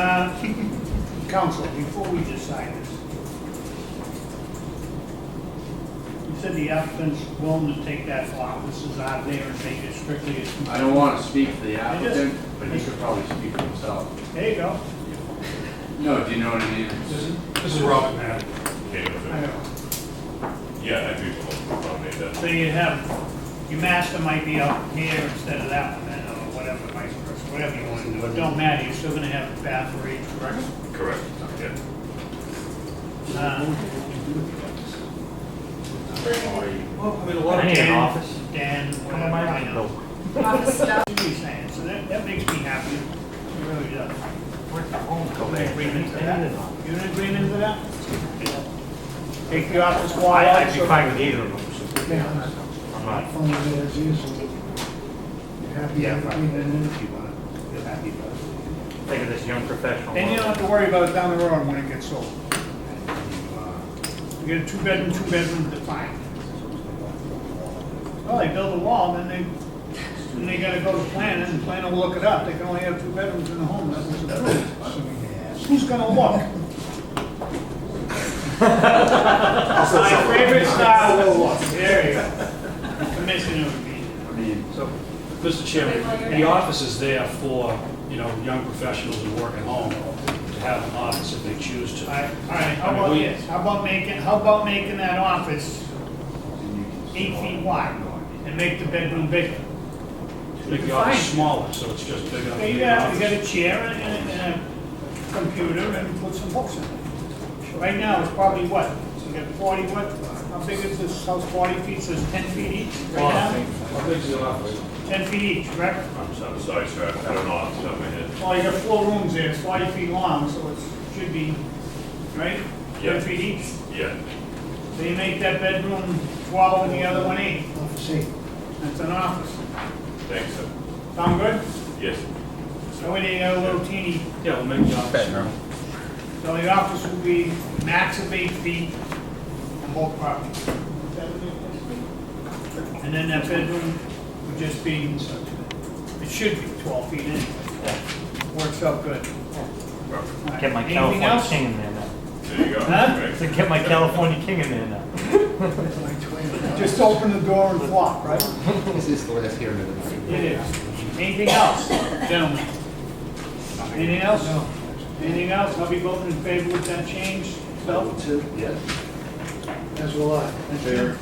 Council, Uh, before we decide this, you said the applicant's willing to take that offices out there and make it strictly as. I don't want to speak for the I just- applicant, but he could probably speak for himself. There you go. No, do you know what I mean? This is, this is Robin Madden. Okay, I but- know. Yeah, I do, I made that. So you have, your master might be out here instead of that one, then, or whatever, vice versa, whatever you want to do. It don't matter, you're still gonna have a path for each, correct? Correct, yeah. Uh, Well, I mean, a lot I need an Dan- office. Dan, Come on, whatever, my I mind, know. no. office stuff. What are you saying? So that, that makes me happy, it really does. Work from home, go You there. in agreement to I need that? an office. You in agreement to that? Take the office wall I- out, I'd be so. fine with either of them, so, to be honest. I'm not, Only there is usually. You're happy Yeah, to right. be in it. You're happy about it. think of this young professional. Then you don't have to worry about it down the road when it gets sold. You get a two-bedroom, two-bedroom defined. Well, they build a wall, then they, then they gotta go to planning, and planning will look it up, they can only have two bedrooms in a home, that was approved. Who's gonna look? My favorite style will look, there you go. Commissioner would be. I mean, Mr. Chairman, the office is there for, you know, young professionals who work at home to have an office if they choose to. All right, all right, how about this, how about making, how about making that office eight feet wide and make the bedroom bigger? Make the office smaller, so it's just bigger. So you got, you got a chair and a, and a computer and put some books in it. Right now, it's probably what, you got forty, what, how big is this house, forty feet, so it's ten feet each right now? How big's the office? Ten feet each, correct? I'm so- I'm sorry, sir, I don't know off the top of my head. Well, you got four rooms there, it's forty feet long, so it should be, right? Yeah. Ten feet each, Yeah, so you make that bedroom twelve and the other one eight, Office eight. that's an office. thanks, sir. Sound good? Yes. So we need a little teeny, Yeah, we'll make the office. so the office will be max of eight feet on both properties. And then that bedroom would just be, it should be twelve feet anyway. Works out good. Perfect. Get my Anything California else? king in there now. There you go. Huh? Great. To get my California king in there now. Just open the door and walk, right? This is the last hearing of the night. It is. Anything else, gentlemen? Anything else? Anything else? I'll be voting in favor with that change. So, two. Yes. As will I. Fair.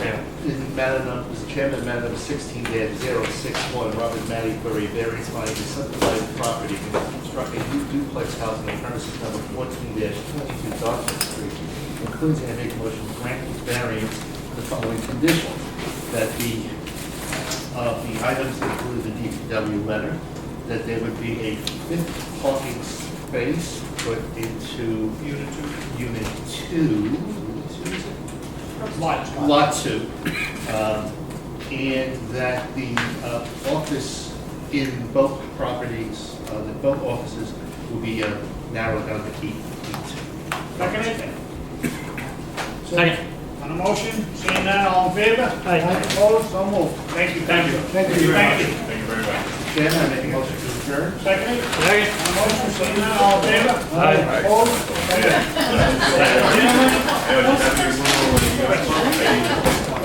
Yeah. In matter number, Mr. Chairman, matter number sixteen dash zero six one, Robert Matty query variance finding to subdivide the property and construct a new duplex house on the premises number fourteen dash twenty-two Dawson Street. Includes and I make a motion to grant the variance with the following condition, that the, uh, of the items included in the DPW letter, that there would be a fifth parking space put into unit two, unit two. Unit two, is it? lot two. Lot two. um, And that the uh, office in both properties, uh, the both offices will be uh, narrowed down to eight feet. Second it? Second. On the motion, seeing none, all in favor? Aye. Opposed, so moved. Thank you. Thank you. Thank you. Thank Thank you very much. Chairman, I make a motion to adjourn. you. Seconded, Second. on the motion, seeing none, all in favor? Aye. Opposed? Thank you. Gentlemen, Yeah, just have your-